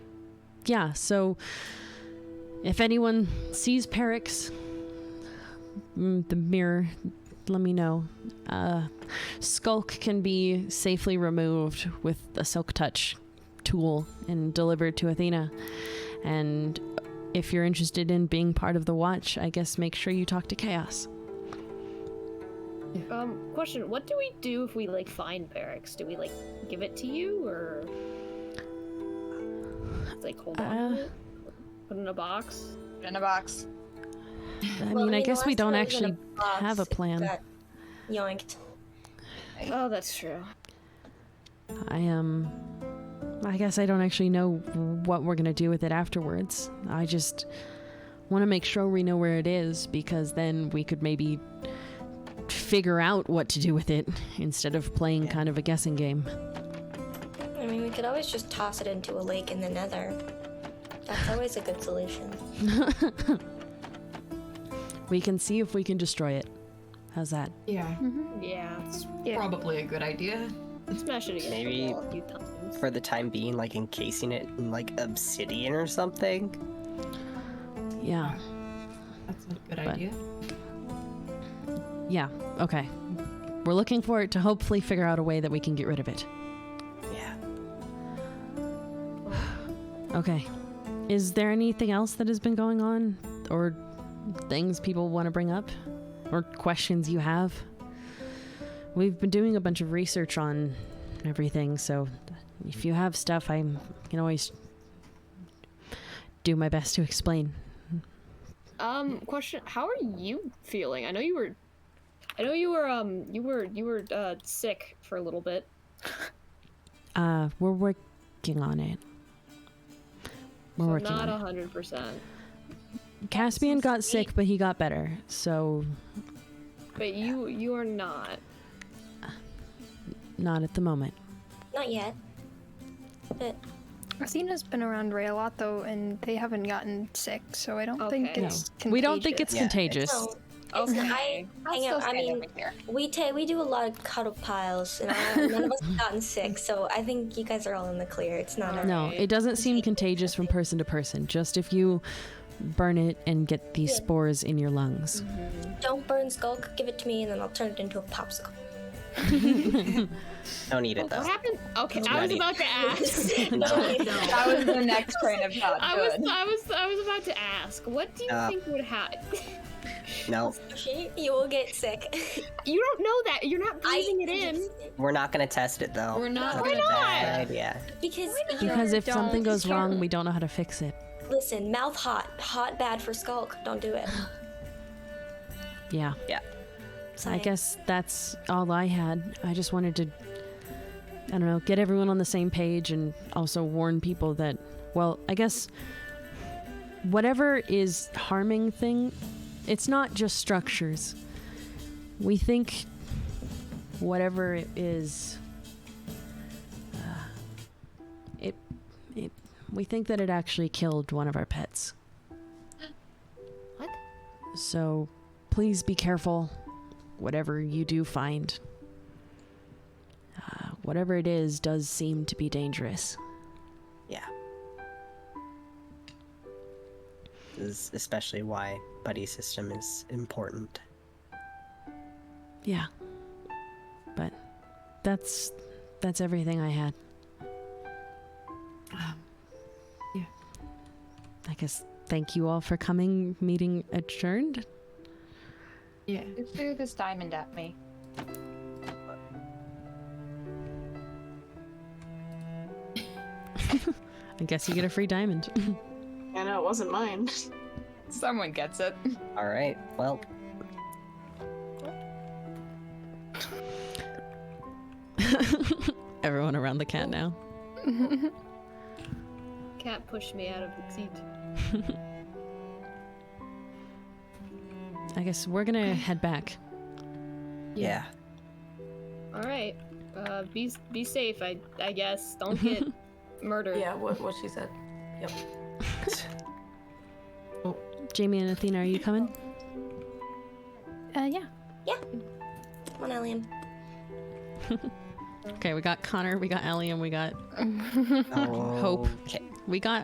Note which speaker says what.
Speaker 1: yeah, so if anyone sees Perix, mm, the mirror, let me know. Uh, Skulk can be safely removed with a silk touch tool and delivered to Athena. And if you're interested in being part of the watch, I guess make sure you talk to Chaos.
Speaker 2: Um, question: What do we do if we like find barracks? Do we like give it to you or like hold on, to
Speaker 1: Uh,
Speaker 2: it? put it in a box?
Speaker 3: In a box.
Speaker 1: I mean, I guess we don't actually have a plan.
Speaker 4: Yoinked.
Speaker 2: Oh, that's true.
Speaker 1: I um I guess I don't actually know what we're going to do with it afterwards. I just want to make sure we know where it is because then we could maybe figure out what to do with it instead of playing kind of a guessing game.
Speaker 4: I mean, we could always just toss it into a lake in the nether. That's always a good solution.
Speaker 1: We can see if we can destroy it. How's that?
Speaker 5: Yeah,
Speaker 2: Yeah,
Speaker 5: probably a good idea.
Speaker 2: smash it against
Speaker 6: Maybe-
Speaker 2: the wall a few times.
Speaker 6: For the time being, like encasing it in like obsidian or something.
Speaker 1: Yeah.
Speaker 5: That's a good
Speaker 1: But-
Speaker 5: idea.
Speaker 1: Yeah. Okay. We're looking for it to hopefully figure out a way that we can get rid of it.
Speaker 6: Yeah.
Speaker 1: Okay. Is there anything else that has been going on? Or things people want to bring up? Or questions you have? We've been doing a bunch of research on everything, so if you have stuff, I can always do my best to explain.
Speaker 2: Um, question: How are you feeling? I know you were, I know you were um, you were you were uh sick for a little bit.
Speaker 1: Uh, we're working on it. We're
Speaker 2: So
Speaker 1: working
Speaker 2: not
Speaker 1: on it.
Speaker 2: hundred percent,
Speaker 1: Caspian got sick, but he got better, so
Speaker 2: but you you are not.
Speaker 1: not at the moment.
Speaker 4: Not yet. But
Speaker 7: Athena's been around Ray a lot though, and they haven't gotten sick, so I don't think
Speaker 2: Okay.
Speaker 7: it's.
Speaker 1: We don't think it's
Speaker 7: contagious.
Speaker 6: Yeah.
Speaker 1: contagious.
Speaker 4: no,
Speaker 2: Okay.
Speaker 4: I hang
Speaker 3: Still
Speaker 4: out. I
Speaker 3: stand
Speaker 4: mean,
Speaker 3: over here.
Speaker 4: we ta- we do a lot of cuddle piles, and I, none of us have gotten sick, so I think you guys are all in the clear. It's not a
Speaker 1: No, it doesn't seem contagious from person to person. Just if you burn it and get these spores in your lungs.
Speaker 4: don't burn skulk. Give it to me, and then I'll turn it into a popsicle.
Speaker 6: Don't eat it though.
Speaker 2: What happened? Okay, I
Speaker 6: not
Speaker 2: was
Speaker 6: it.
Speaker 2: about to ask.
Speaker 3: That was the next train of thought.
Speaker 2: I was
Speaker 3: Good.
Speaker 2: I was I was about to ask. What do you
Speaker 6: Uh,
Speaker 2: think would happen?
Speaker 6: No,
Speaker 4: She- you will get sick.
Speaker 2: You don't know that. You're not
Speaker 4: I
Speaker 2: breathing it in.
Speaker 6: we're not gonna test it though.
Speaker 3: We're not.
Speaker 6: That's
Speaker 2: Why
Speaker 6: a
Speaker 2: not?
Speaker 6: bad idea.
Speaker 4: because
Speaker 1: Because if something
Speaker 3: don't
Speaker 1: goes wrong,
Speaker 3: start.
Speaker 1: we don't know how to fix it.
Speaker 4: listen, mouth hot, hot bad for skulk. Don't do it.
Speaker 1: Yeah.
Speaker 6: Yeah.
Speaker 1: I guess that's all I had. I just wanted to, I don't know, get everyone on the same page and also warn people that, well, I guess whatever is harming thing, it's not just structures. We think whatever it is, uh, it, it, we think that it actually killed one of our pets.
Speaker 2: What?
Speaker 1: So please be careful whatever you do find. Uh, whatever it is does seem to be dangerous.
Speaker 6: Yeah. This is especially why buddy system is important.
Speaker 1: Yeah. But that's that's everything I had. Um,
Speaker 5: yeah.
Speaker 1: I guess thank you all for coming. Meeting adjourned.
Speaker 5: Yeah.
Speaker 3: Who threw this diamond at me?
Speaker 1: I guess you get a free diamond.
Speaker 8: I know it wasn't mine.
Speaker 3: Someone gets it.
Speaker 6: All right. Well,
Speaker 1: Everyone around the cat now.
Speaker 2: Cat pushed me out of the seat.
Speaker 1: I guess we're gonna head back.
Speaker 6: yeah.
Speaker 2: All right. Uh, be be safe. I I guess. Don't get murdered.
Speaker 9: Yeah, what, what she said.
Speaker 1: Jamie and Athena, are you coming?
Speaker 7: Uh, yeah.
Speaker 4: Come on, Alien.
Speaker 1: Okay, we got Connor, we got Allie, and we got Hope.
Speaker 6: Okay.
Speaker 1: we got